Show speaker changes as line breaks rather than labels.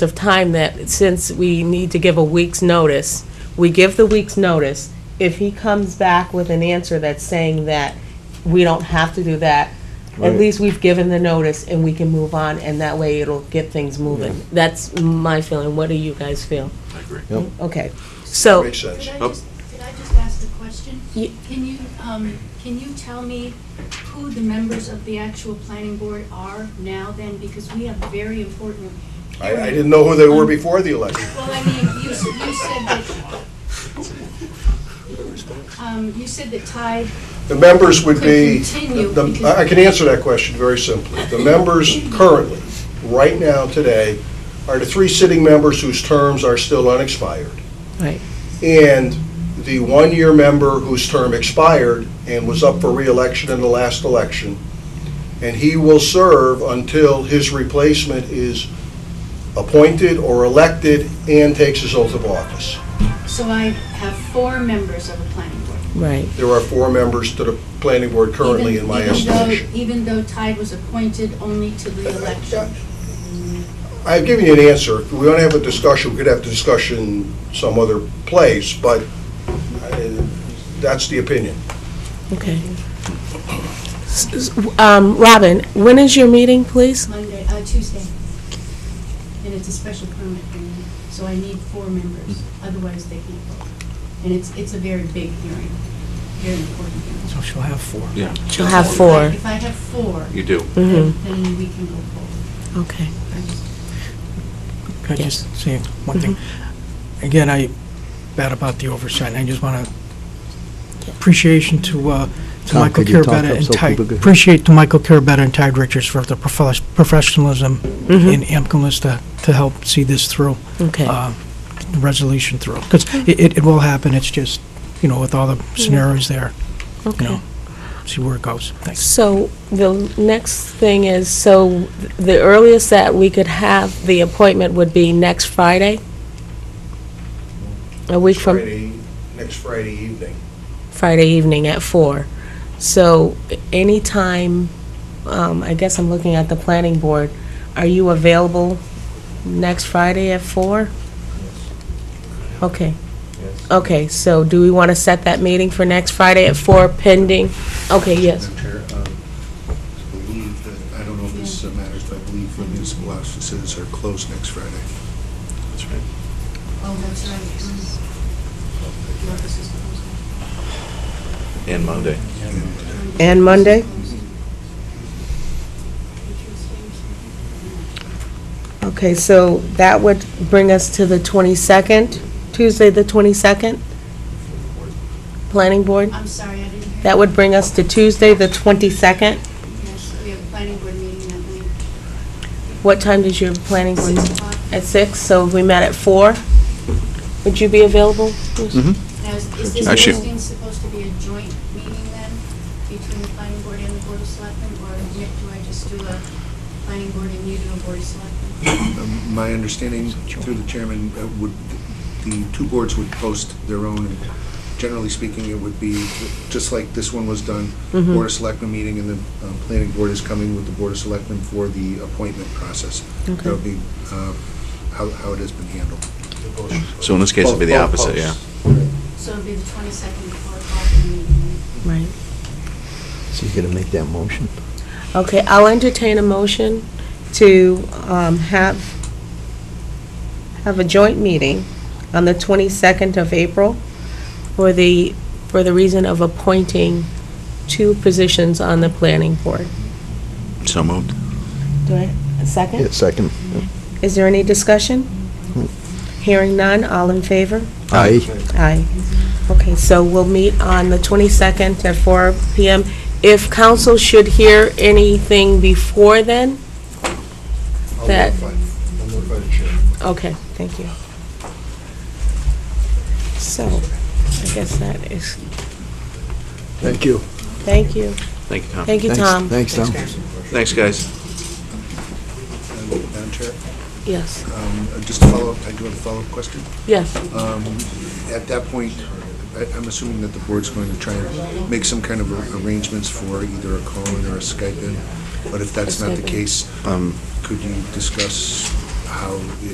of time that, since we need to give a week's notice, we give the week's notice. If he comes back with an answer that's saying that we don't have to do that, at
Right.
least we've given the notice and we can move on, and that way it'll get things moving. That's my feeling. What do you guys feel?
I agree.
Yep.
Okay, so.
Makes sense.
Could I
Oh.
just, could I just ask a question?
Ye-
Can you, um, can you tell me who the members of the actual planning board are now then? Because we have very important.
I, I didn't know who they were before the election.
Well, I mean, you, s- you said that, um, you said that Tide,
The members would be,
Could continue
the-
because-
I I can answer that question very simply. The members currently, right now, today, are the three sitting members whose terms are still unexpired.
Right.
And the one-year member whose term expired and was up for reelection in the last election. And he will serve until his replacement is appointed or elected and takes his oath of office.
so I have four members of the planning board.
Right.
There are four members to the planning board currently,
Even-
in my
even though-
estimation.
Even though Tide was appointed only to the election.
I've given you an answer. If we don't have a discussion, we could have discussion some other place, but uh, that's the opinion.
Okay. S- s- Um, Robin, when is your meeting, please?
Monday, uh, Tuesday. And it's a special permit hearing, so I need four members, otherwise they can't vote. And it's, it's a very big hearing, very important hearing.
So she'll have four.
Yeah.
She'll have four.
If I have four,
You do.
Mm-hmm,
then then we can go forward.
okay.
I just-
Could I just say one thing?
Mm-hmm.
Again, I, bad about the oversight, and I just want to, appreciation to, uh, to
Tom,
Michael
could you talk
Carabetta
up
and
so
Ty,
people could-
appreciate to Michael Carabetta and Ty Richards for their profes- professionalism in AMCLIS to, to help see this through.
Mm-hmm. Okay.
uh, the Resolution through, because it, it- it will happen, it's just, you know, with all the scenarios there, you
Mm-hmm. Okay.
know, see where it goes. Thanks.
So the next thing is, so the earliest that we could have the appointment would be next Friday? A week from
Friday, next Friday evening.
Friday evening at four. So anytime, um, I guess I'm looking at the planning board, are you available next Friday at four? Okay. Okay, so do we want to set that meeting for next Friday at four pending? Okay, yes.
Madam Chair, um, I believe that, I don't know if this uh, matters, but I believe the municipal offices are closed next Friday.
That's right.
Oh, that's right. um, the office is closed.
And Monday.
And Monday? Okay, so that would bring us to the 22nd, Tuesday, the 22nd? Planning Board?
I'm sorry, I didn't hear.
That would bring us to Tuesday, the 22nd?
Yes, we have a planning board meeting that night,
What time does your planning board?
six o'clock.
At 6, so if we met at 4, would you be available?
Now, is is this
Actually-
posting supposed to be a joint meeting then, between the planning board and the board of selectmen? Or Nick, do I just do a planning board and you do a board of selectmen?
Um, My understanding, through the chairman, uh, would, the two boards would post their own, and generally speaking, it would be, just like this one was done, Board of Selectmen meeting, and the uh, planning board is coming with the Board of Selectmen for the appointment process. That would be uh, how how it has been handled.
So in this case, it'd be the
Both- both
opposite, yeah.
posts.
So it'll be the 22nd before the meeting.
Right.
So you're gonna make that motion?
Okay, I'll entertain a motion to um, have, have a joint meeting on the 22nd of April for the, for the reason of appointing two positions on the planning board.
So moved.
Do I, a
Yeah,
second?
second.
Is there any discussion? Hearing none, all in favor?
Aye.
Aye. Okay, so we'll meet on the 22nd at four PM. If council should hear anything before then,
I'll
That-
notify, I'll notify the chair.
Okay, thank you. So, I guess that is,
Thank you.
thank you.
Thank you, Tom.
Thank you,
Thanks-
Tom.
Thanks, Tom.
Thanks, guys.
Um, Madam Chair,
Yes,
um, just to follow up, I do have a follow-up question.
yes.
Um, At that point, I- I'm assuming that the board's going to try and make some kind of ar- arrangements for either a call-in or a Skype in, but if that's not the
Skype in.
case, could you discuss how